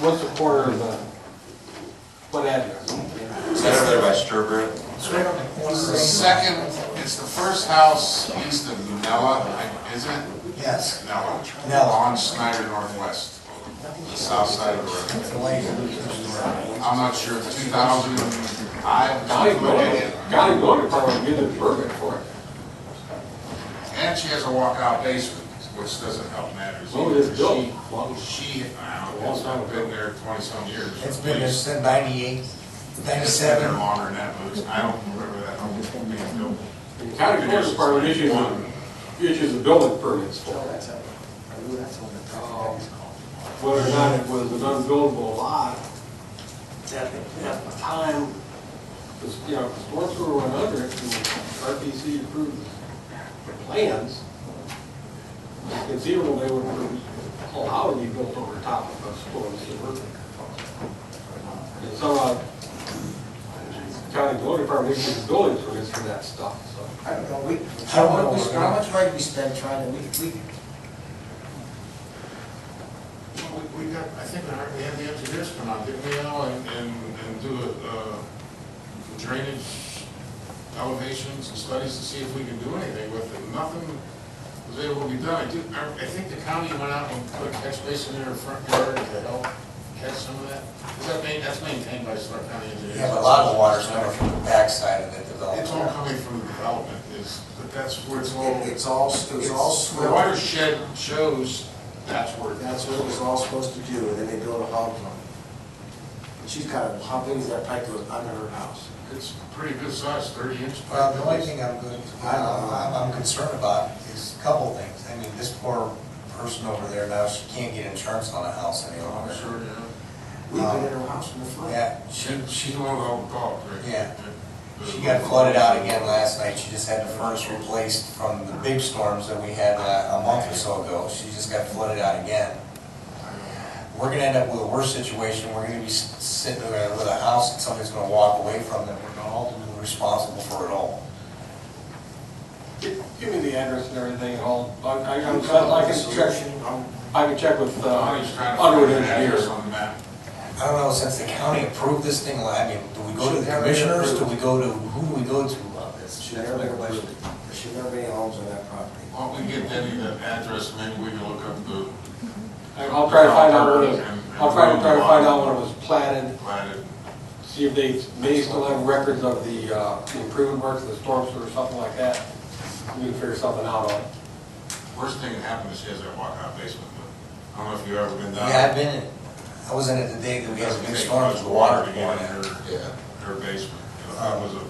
What's the corner of the, what address? Is that over there by Sturbridge? The second, it's the first house east of Nella, I- is it? Yes, Nella. Nella. On Snyder Northwest, the south side of the road. the lady who's- I'm not sure, 2000, I have County no Building, idea. County Building Department did a permit for it. And she has a walkout basement, which doesn't help matters. So Oh, it is either. built. She- She, I don't know, it's been there 20-some years. It's been there since ninety-eight, It's been there ninety-seven. longer than that, but I don't remember that home being built. The County Building Department issues, a- issues a building permits for it. Um, Whether or not it was an unbuildable lot, at the, at the time, was, you know, the sports were went under it, and RPC approved the plans. It's Conceivable they would have allowed to be built over top of us, but it worked. And somehow, county building department issues building permits for that stuff, so. I don't know, we, how much, we- how much money we spend trying to, we, we, Well, We we got, I think we heard- we had the engineers come out, didn't we, Al, and, and and do a, uh, drainage elevations and studies to see if we can do anything with it. Nothing was able to be done. I do, I I think the county went out and put a catch basin in their front yard to help catch some of that. Is that main, that's maintained by Stark County Engineers? Yeah, but a lot of the water's coming from the backside of the It's all development. coming from the development, is, but that's where it's all. it's all, it was all The swell, watershed shows that's where. that's what it was all supposed to do, and then they built a hog farm. And she's got, a- how big is that pipe that was under her house? It's pretty good size, thirty inch. Well, the only thing I'm good, I'm, I'm- I'm concerned about is a couple things. I mean, this poor person over there now, she can't get insurance on a house any Oh, I'm longer. sure, yeah. We've been in her house from the flood. Yeah, she, She, she's the one with all the dog, right? Yeah. She got flooded out again last night, she just had the furnace replaced from the big storms that we had uh, a month or so ago, she just got flooded out again. We're gonna end up with a worse situation, we're gonna be s- sitting there with a house that somebody's gonna walk away from, that we're gonna all be responsible for it all. Give give me the address and everything, and I'll, I, I I'm- I can check, I can check with Bonnie's trying uh, to find Underwood an address Engineers. on the map. I don't know, since the county approved this thing, I mean, do we go to the commissioners, do we go to, who do we go to about this? Should never been, there should never be any homes on that property. Why don't we get Debbie that address, maybe we can look up the I'll try to find out when it was, I'll try to, try to find out when it was platted, platted. see if they may still have records of the, uh, the improvement works, the storm sewer, something like that. We can figure something out on it. Worst thing that happened is she has that walkout basement, but I don't know if you've ever been down. Yeah, I've been, in- I was in it the day that we had the big storms, the water to pouring get in in. her, her basement. You know, That was a,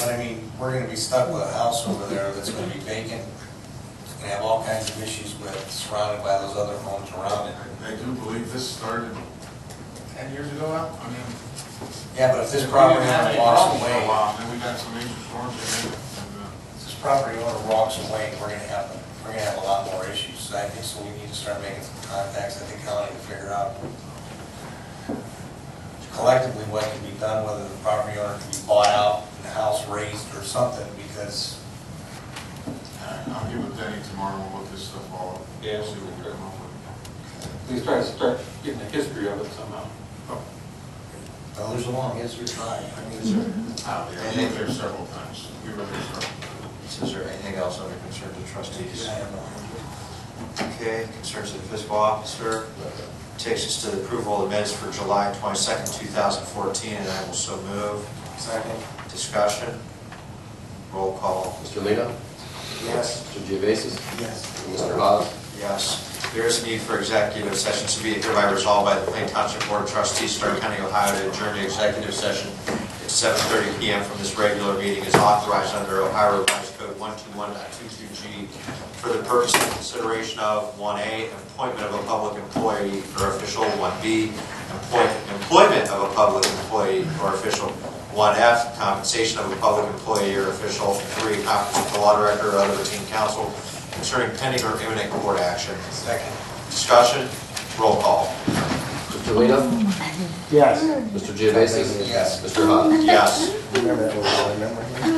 But I mean, we're gonna be stuck with a house over there that's gonna be vacant, it's gonna have all kinds of issues with, surrounded by those other homes around it. I I do believe this started ten years ago now, I mean. Yeah, but if this We property didn't have owner any walks problems for a away, while, Then we got some major storms in it, and, uh, if this property owner walks away, we're gonna have, we're gonna have a lot more issues. So I think, so we need to start making some contacts at the county to figure out collectively what can be done, whether the property owner can be bought out, and the house raised or something, because I'll get with Denny tomorrow, we'll look this stuff all up. Yeah. See what we can come up with. At least try to start getting the history of it somehow. others along, yes, you're trying. I mean, Uh, yeah, we were there several times, we were there several times. Is there anything else under concerns of trustees? I don't know. Okay, concerns of the fiscal officer. Takes us to the approval of the minutes for July 22nd, 2014, and I will so move. Second, Discussion? Roll call. Mr. Lino? yes, Mr. Geovasis? yes. Mr. Hawes? Yes. There is a need for executive session to be hereby resolved by the Plain Township Board of Trustees, Stark County, Ohio, to adjourn the executive session at 7:30 PM from this regular meeting is authorized under Ohio Revised Code 121.22G for the purpose and consideration of 1A, appointment of a public employee or official, 1B, employ- employment of a public employee or official, 1F, compensation of a public employee or official, 3, conference with the law director or other routine counsel concerning pending or imminent court action. Second. Discussion, roll call. Mr. Lino? Yes. Mr. Geovasis? Yes. Mr. Hawes? Yes. Remember that, one, remember?